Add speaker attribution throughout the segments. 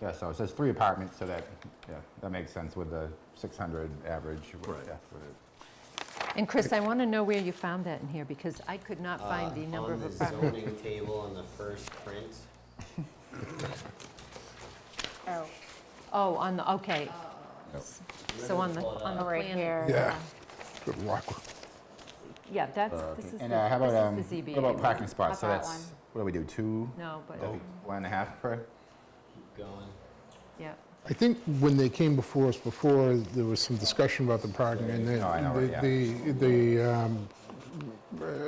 Speaker 1: Yeah, so it says three apartments, so that, yeah, that makes sense with the 600 average. with-
Speaker 2: Right.
Speaker 1: yeah, with it.
Speaker 3: And Chris, I want to know where you found that in here, because I could not find
Speaker 4: Uh,
Speaker 3: the number of
Speaker 4: On the
Speaker 3: apartments.
Speaker 4: zoning table on the first print,
Speaker 5: Oh,
Speaker 3: Oh, on the, okay.
Speaker 1: Yep.
Speaker 3: So on the, on the
Speaker 5: Oh, right
Speaker 3: plan.
Speaker 5: here.
Speaker 6: Yeah, good luck.
Speaker 3: Yeah, that's, this is the,
Speaker 1: And uh, how about, um,
Speaker 3: this is the ZBA.
Speaker 1: what about parking spots? So
Speaker 5: About
Speaker 1: that's,
Speaker 5: one.
Speaker 1: what do we do, two?
Speaker 3: No, but,
Speaker 1: Oh, One and a half per?
Speaker 4: keep going.
Speaker 3: yeah.
Speaker 6: I think when they came before us before, there was some discussion about the parking, and
Speaker 1: No, Oh, I know,
Speaker 6: the-
Speaker 1: yeah.
Speaker 6: the, the, um,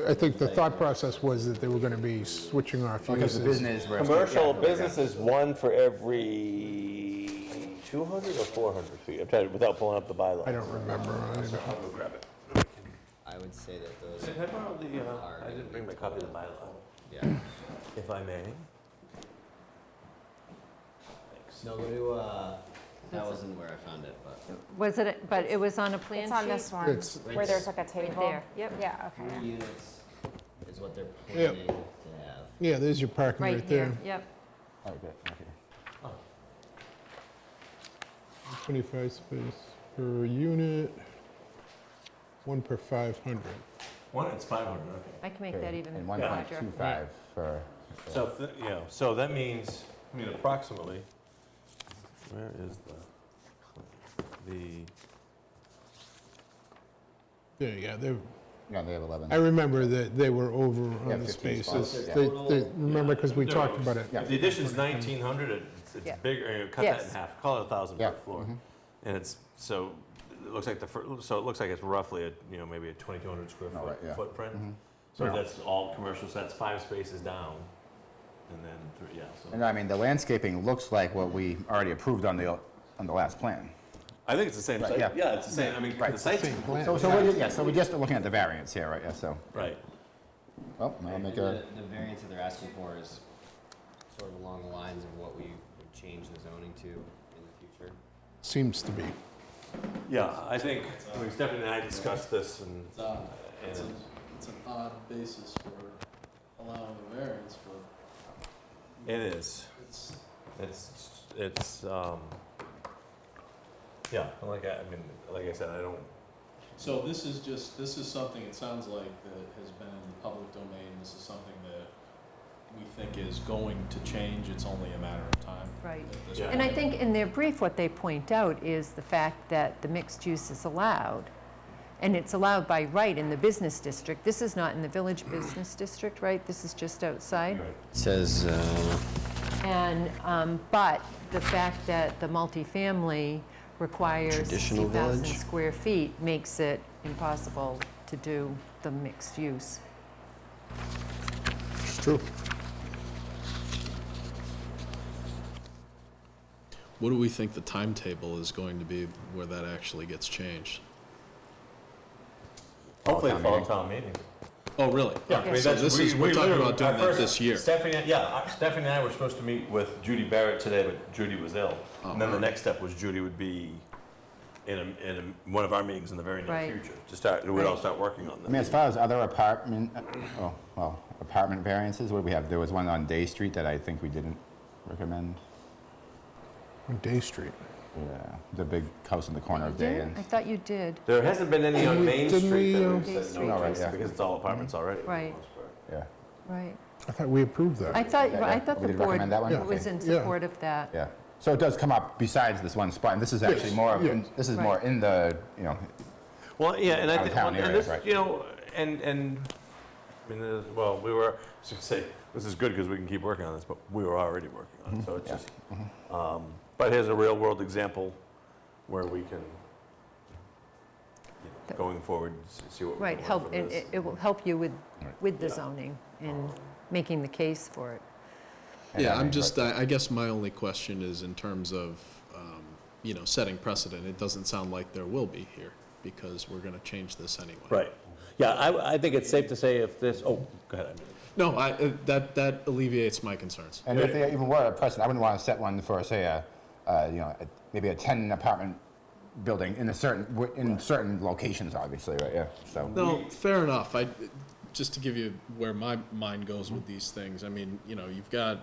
Speaker 6: I think the thought process was that they were going to be switching off
Speaker 1: Because
Speaker 6: uses.
Speaker 1: the business where. it's-
Speaker 7: Commercial
Speaker 1: yeah,
Speaker 7: business
Speaker 1: yeah.
Speaker 7: is one for every 200 or 400 feet, I'm trying, to- without pulling up the bylaw.
Speaker 6: I don't remember. I don't know.
Speaker 4: I would say that those
Speaker 7: I borrow the, uh,
Speaker 4: are
Speaker 7: I
Speaker 4: gonna
Speaker 7: didn't bring my copy of the bylaw.
Speaker 4: Yeah.
Speaker 7: If I may.
Speaker 4: No, go to, uh, that wasn't where I found it, but
Speaker 3: Was it, but it was on a plan sheet?
Speaker 5: It's on this one,
Speaker 6: It's-
Speaker 5: where there's like a
Speaker 3: Right
Speaker 5: table.
Speaker 3: there, yep.
Speaker 5: Yeah, okay.
Speaker 4: three units is what they're
Speaker 6: Yeah.
Speaker 4: planning to have.
Speaker 6: Yeah, there's your parking
Speaker 3: Right
Speaker 6: right there.
Speaker 3: here, yep.
Speaker 1: Okay, okay.
Speaker 6: 25 space per unit, one per 500.
Speaker 7: One, it's 500, okay.
Speaker 3: I can make
Speaker 1: Okay,
Speaker 3: that even
Speaker 1: And
Speaker 3: larger.
Speaker 1: 1.25 for,
Speaker 7: So, if the- you know, so that means, I mean, approximately, where is the, the,
Speaker 6: There you go. They're-
Speaker 1: yeah, they have
Speaker 6: I
Speaker 1: 11.
Speaker 6: remember that they were over
Speaker 1: Yeah,
Speaker 6: on the
Speaker 1: 15
Speaker 6: spaces.
Speaker 1: spots, yeah.
Speaker 6: They- they- Remember, because we
Speaker 7: Yeah.
Speaker 6: talked about it.
Speaker 7: if the addition's 1,900, it's,
Speaker 3: Yeah.
Speaker 7: it's bigger, you know, cut that in
Speaker 3: Yes.
Speaker 7: half, call it 1,000
Speaker 1: Yeah, Mm-hmm,
Speaker 7: per floor. And it's, so, it looks like the, fir- so it looks like it's roughly, a you know, maybe a 2,200 square
Speaker 1: Oh, right, yeah.
Speaker 7: foot footprint. So if that's all commercial, so that's five spaces down, and then, three yeah, so.
Speaker 1: And I mean, the landscaping looks like what we already approved on the, on the last plan.
Speaker 7: I think it's the same site.
Speaker 1: yeah.
Speaker 7: Yeah, it's the same, I mean,
Speaker 1: Right,
Speaker 7: the site's.
Speaker 6: plan.
Speaker 1: So, so we're, ju- yeah, so we're just looking at the variance here, right, yeah, so,
Speaker 7: Right.
Speaker 1: well, I'll
Speaker 4: And
Speaker 1: make a,
Speaker 4: the, the variance that they're asking for is sort of along the lines of what we would change the zoning to in the future.
Speaker 6: Seems to be.
Speaker 7: Yeah, I think, I mean, Stephanie uh, and I discussed this and.
Speaker 8: It's odd. It's, a,
Speaker 7: and-
Speaker 8: it's an odd basis for allowing a variance, but
Speaker 7: It is.
Speaker 8: it's,
Speaker 7: It's, it's, um, yeah, and like I, I mean, like I said, I don't,
Speaker 8: so this is just, this is something, it sounds like, that has been in the public domain. This is something that we think is going to change. It's only a matter of time.
Speaker 3: Right.
Speaker 8: at this
Speaker 7: Yeah.
Speaker 3: And I
Speaker 8: point.
Speaker 3: think in their brief, what they point out is the fact that the mixed use is allowed, and it's allowed by right in the business district. This is not in the village business district, right? This is just outside.
Speaker 4: It says, uh,
Speaker 3: And, um, but the fact that the multifamily requires
Speaker 4: Traditional
Speaker 3: 60,000
Speaker 4: village?
Speaker 3: square feet makes it impossible to do the mixed use.
Speaker 6: It's true.
Speaker 9: What do we think the timetable is going to be where that actually gets changed?
Speaker 7: hopefully
Speaker 1: town
Speaker 7: fall
Speaker 1: meeting.
Speaker 7: town meeting.
Speaker 9: Oh, really?
Speaker 7: I mean,
Speaker 9: So
Speaker 7: that's-
Speaker 9: this
Speaker 7: we-
Speaker 9: is,
Speaker 7: we
Speaker 9: we're talking
Speaker 7: literally-
Speaker 9: about doing
Speaker 7: at
Speaker 9: that
Speaker 7: first,
Speaker 9: this year.
Speaker 7: Stephanie, yeah, uh, Stephanie and I were supposed to meet with Judy Barrett today, but Judy was ill.
Speaker 9: Oh,
Speaker 7: And then the next step was Judy would be in a, in a, one of our meetings in the very near
Speaker 3: Right.
Speaker 7: future, to start, we'd all
Speaker 3: Right.
Speaker 7: start working on
Speaker 1: I mean,
Speaker 7: this.
Speaker 1: as far as other apartment, oh, well, apartment variances, what do we have? There was one on Day Street that I think we didn't recommend.
Speaker 6: On Day Street.
Speaker 1: Yeah, the big house in the corner of Day and.
Speaker 3: I thought you did,
Speaker 7: There hasn't been any on Main
Speaker 6: Didn't
Speaker 7: Street
Speaker 6: we,
Speaker 7: that
Speaker 9: uh,
Speaker 6: um,
Speaker 7: we've said
Speaker 3: Street.
Speaker 7: no,
Speaker 1: Oh, right,
Speaker 7: to,
Speaker 1: yeah.
Speaker 7: because it's all apartments already. for the
Speaker 3: Right.
Speaker 7: most part.
Speaker 1: Yeah,
Speaker 3: right.
Speaker 6: I thought we approved that.
Speaker 3: I thought,
Speaker 1: yeah,
Speaker 3: I
Speaker 1: yeah.
Speaker 3: thought
Speaker 1: We
Speaker 3: the
Speaker 1: did recommend that one? Yeah.
Speaker 3: board was in
Speaker 6: Okay. Yeah.
Speaker 3: support of that.
Speaker 1: yeah. So it does come up besides this one spot, and this is actually
Speaker 6: Yes,
Speaker 1: more, of-
Speaker 6: yes.
Speaker 1: this is more
Speaker 3: Right.
Speaker 1: in the, you know,
Speaker 7: Well, yeah, and I think,
Speaker 1: Downtown
Speaker 7: and
Speaker 1: areas,
Speaker 7: this,
Speaker 1: right.
Speaker 7: you know, and, and, I mean, uh, well, we were, I was gonna say, this is good because we can keep working on this, but we were already working on it, so it's just, um, but here's a real world example where we can, you know,
Speaker 3: That-
Speaker 7: going forward, s- see what we
Speaker 3: Right,
Speaker 7: can learn
Speaker 3: help,
Speaker 7: from
Speaker 3: it,
Speaker 7: this.
Speaker 3: it- it will help you with,
Speaker 1: Right.
Speaker 3: with the
Speaker 7: Yeah.
Speaker 3: zoning and making the case for it.
Speaker 9: Yeah,
Speaker 1: Yeah,
Speaker 9: I'm just, I I guess my only question is in terms of, um, you know, setting precedent. It doesn't sound like there will be here because we're going to change this anyway.
Speaker 7: Right, yeah, I, I think it's safe to say if this, oh, go ahead.
Speaker 9: No, I, uh, that, that alleviates my concerns.
Speaker 1: and if they even were a precedent, I wouldn't want to set one for, say, a, uh, you know, a- maybe a ten apartment building in a certain, w- in certain locations, obviously, right, yeah, so.
Speaker 9: No, fair enough. I, just to give you where my mind goes with these things, I mean, you know, you've got